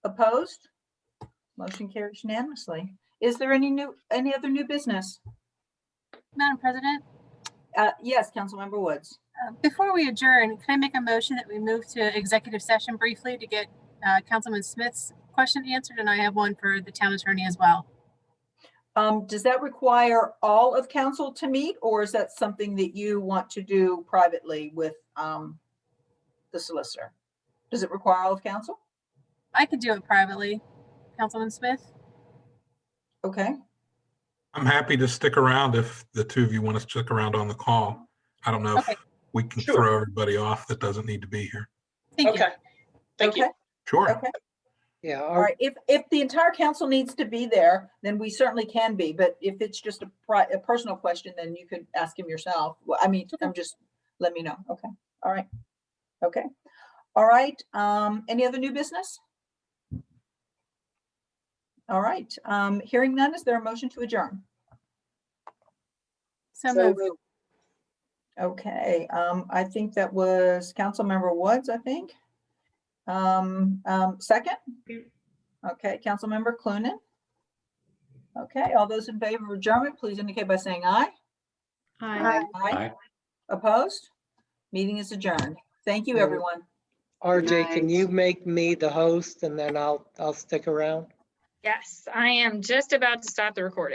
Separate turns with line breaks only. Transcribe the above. Opposed? Motion carries unanimously. Is there any new, any other new business?
Madam President,
Uh, Yes, Councilmember Woods.
uh, before we adjourn, can I make a motion that we move to executive session briefly to get uh, Councilman Smith's question answered? And I have one for the town attorney as well.
Um, Does that require all of council to meet, or is that something that you want to do privately with um, the solicitor? Does it require all of council?
I could do it privately, Councilman Smith.
Okay,
I'm happy to stick around if the two of you want to stick around on the call. I don't know
Okay.
if we can
Sure.
throw everybody off that doesn't need to be here.
Thank you.
Okay. Thank you.
Okay.
Sure.
okay.
Yeah,
All
our-
right. If, if the entire council needs to be there, then we certainly can be. But if it's just a pri, a personal question, then you could ask him yourself. Well, I mean, I'm just, let me know. Okay. All right. Okay. All right. Um, any other new business? All right. Um, hearing none, is there a motion to adjourn?
So moved.
moved. Okay, um, I think that was Councilmember Woods, I think. Um, um, second? Okay, Councilmember Clunin? Okay, all those in favor of adjournment, please indicate by saying aye.
Aye.
Aye.
Aye.
Opposed? Meeting is adjourned. Thank you,
Very-
everyone.
RJ, can
Nice.
you make me the host and then I'll, I'll stick around?
Yes, I am just about to stop the recording.